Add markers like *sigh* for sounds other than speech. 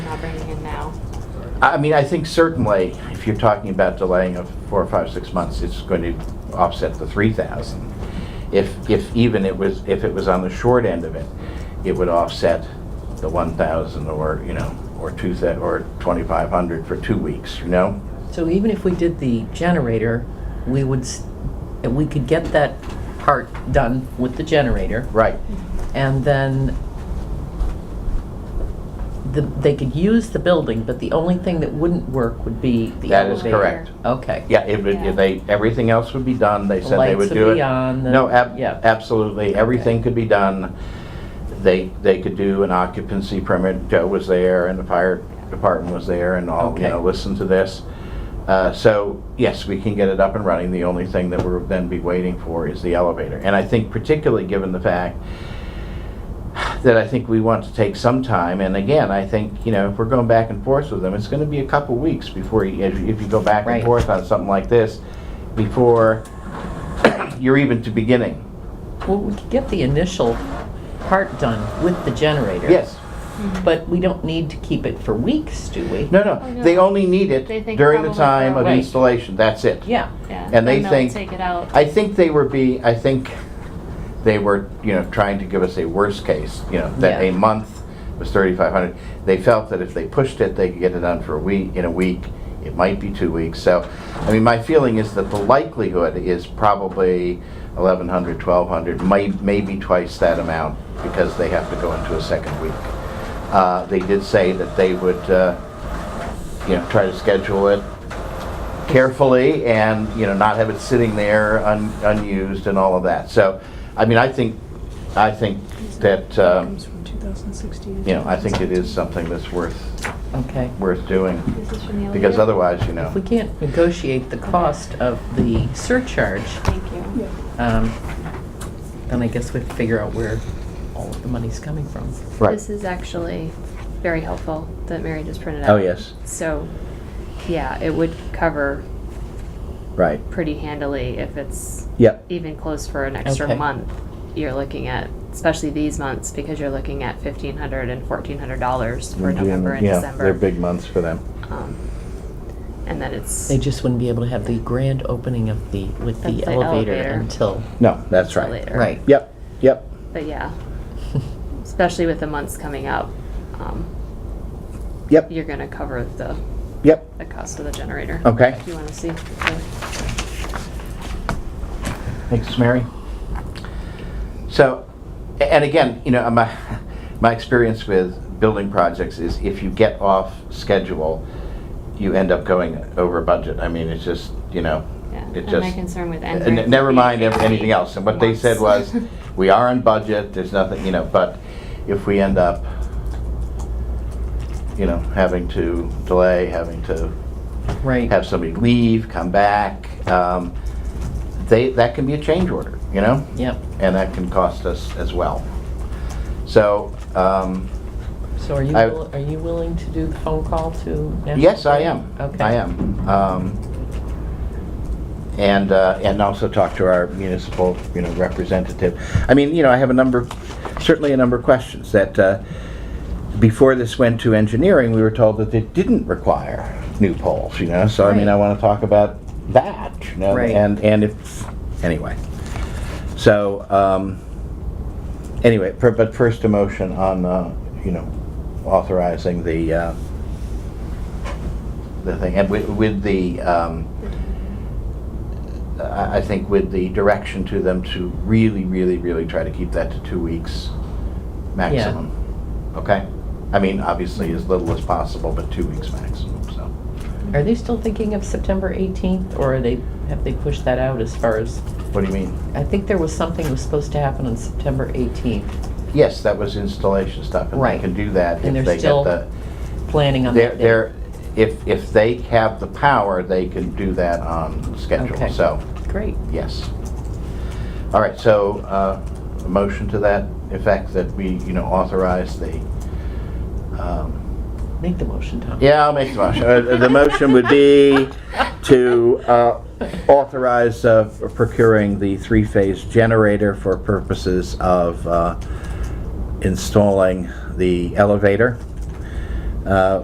not bringing in now? I mean, I think certainly, if you're talking about delaying of four, five, six months, it's going to offset the three thousand. If, if even it was, if it was on the short end of it, it would offset the one thousand or, you know, or two, thou- or twenty-five hundred for two weeks, you know? So even if we did the generator, we would, s- we could get that part done with the generator. Right, And then the, they could use the building, but the only thing that wouldn't work would be the that is elevator. correct. Okay. Yeah, it would, Yeah. if they, everything else would be done, they The said they lights would would do it. be on, the- No, ab- yeah. absolutely, everything could be done. They, they could do an occupancy permit, Joe was there, and the fire department was there, and all, you Okay. know, listen to this. Uh, So, yes, we can get it up and running, the only thing that we'll then be waiting for is the elevator. And I think particularly given the fact that I think we want to take some time, and again, I think, you know, if we're going back and forth with them, it's gonna be a couple weeks before, you- if you if you go back and Right. forth on something like this, before *coughs* you're even to beginning. Well, we could get the initial part done with the generator. Yes. But we don't need to keep it for weeks, do we? No, Oh, no, no. they only need it They think during the probably time for- of Right. installation, that's it. Yeah. Yeah. And then they they'll think- Take it out. I think they were be, I think they were, you know, trying to give us a worst case, you know, that a Yeah. month was thirty-five hundred. They felt that if they pushed it, they could get it done for a week, in a week, it might be two weeks, so, I mean, my feeling is that the likelihood is probably eleven hundred, twelve hundred, may, maybe twice that amount, because they have to go into a second week. Uh, they did say that they would, uh, you know, try to schedule it carefully and, you know, not have it sitting there un- unused and all of that. So, I mean, I think, I think that, um, Comes from 2016. you know, I think it is something that's worth, Okay. worth doing. This is from the Because elevator? otherwise, you know, If we can't negotiate the cost of the surcharge, Thank you. Yeah. um, then I guess we have to figure out where all of the money's coming from. right. This is actually very helpful that Mary just printed out. Oh, yes, So, yeah, it would cover right. pretty handily if it's Yep, even close for an extra Okay. month. You're looking at, especially these months, because you're looking at fifteen hundred and fourteen hundred dollars for November and December. months for them. Um, and then it's They just wouldn't be able to have the grand opening of the, Of with the the elevator elevator. until, No, that's till later. right. Yep, yep. But *laughs* yeah, especially with the months coming up, um, Yep, you're gonna cover the, yep. the cost of the generator. Okay. If you wanna see. the- Thanks, Mary. So, a- and again, you know, my, *laughs* my experience with building projects is if you get off schedule, you end up going over budget. I mean, it's just, you know, Yeah. it And my just- concern with and Enbridge. never mind ev- anything else. And what they said *laughs* was, Once. we are on budget, there's nothing, you know, but if we end up, you know, having to delay, having to Right. have somebody leave, come back, um, they, that can be a change order, you know? Yep. and that can cost us as well. So, um, So are you, I- will- are you willing to do the phone call to? National yes, I Grid? am. Okay. I am. Um, And, uh, and also talk to our municipal, you know, representative. I mean, you know, I have a number, certainly a number of questions that, uh, before this went to engineering, we were told that it didn't require new poles, you know? So I mean, I Right. want to talk about that, you know? Right. And, and if, anyway. So, um, anyway, per- but first a motion on, uh, you know, authorizing the, uh, the thing, and with, with the, um, I, I think with the direction to them to really, really, really try to keep that to two weeks maximum. Okay? I mean, obviously as little as possible, but two weeks maximum, so. Are they still thinking of September 18th, or are they, have they pushed that out as far as, What do you mean? I think there was something was supposed to happen on September 18th, Yes, that was installation stuff, and they Right. can do that And if they're they get still the, planning on they're, that day. they're, if, if they have the power, they can do that on schedule, Okay. so, Great. yes. All right, so, uh, a motion to that effect that we, you know, authorize the, um, Make the motion, Tom. Yeah, I'll make the motion. Uh, The motion would be to uh, authorize uh, procuring the three-phase generator for purposes of uh, installing the elevator. Uh,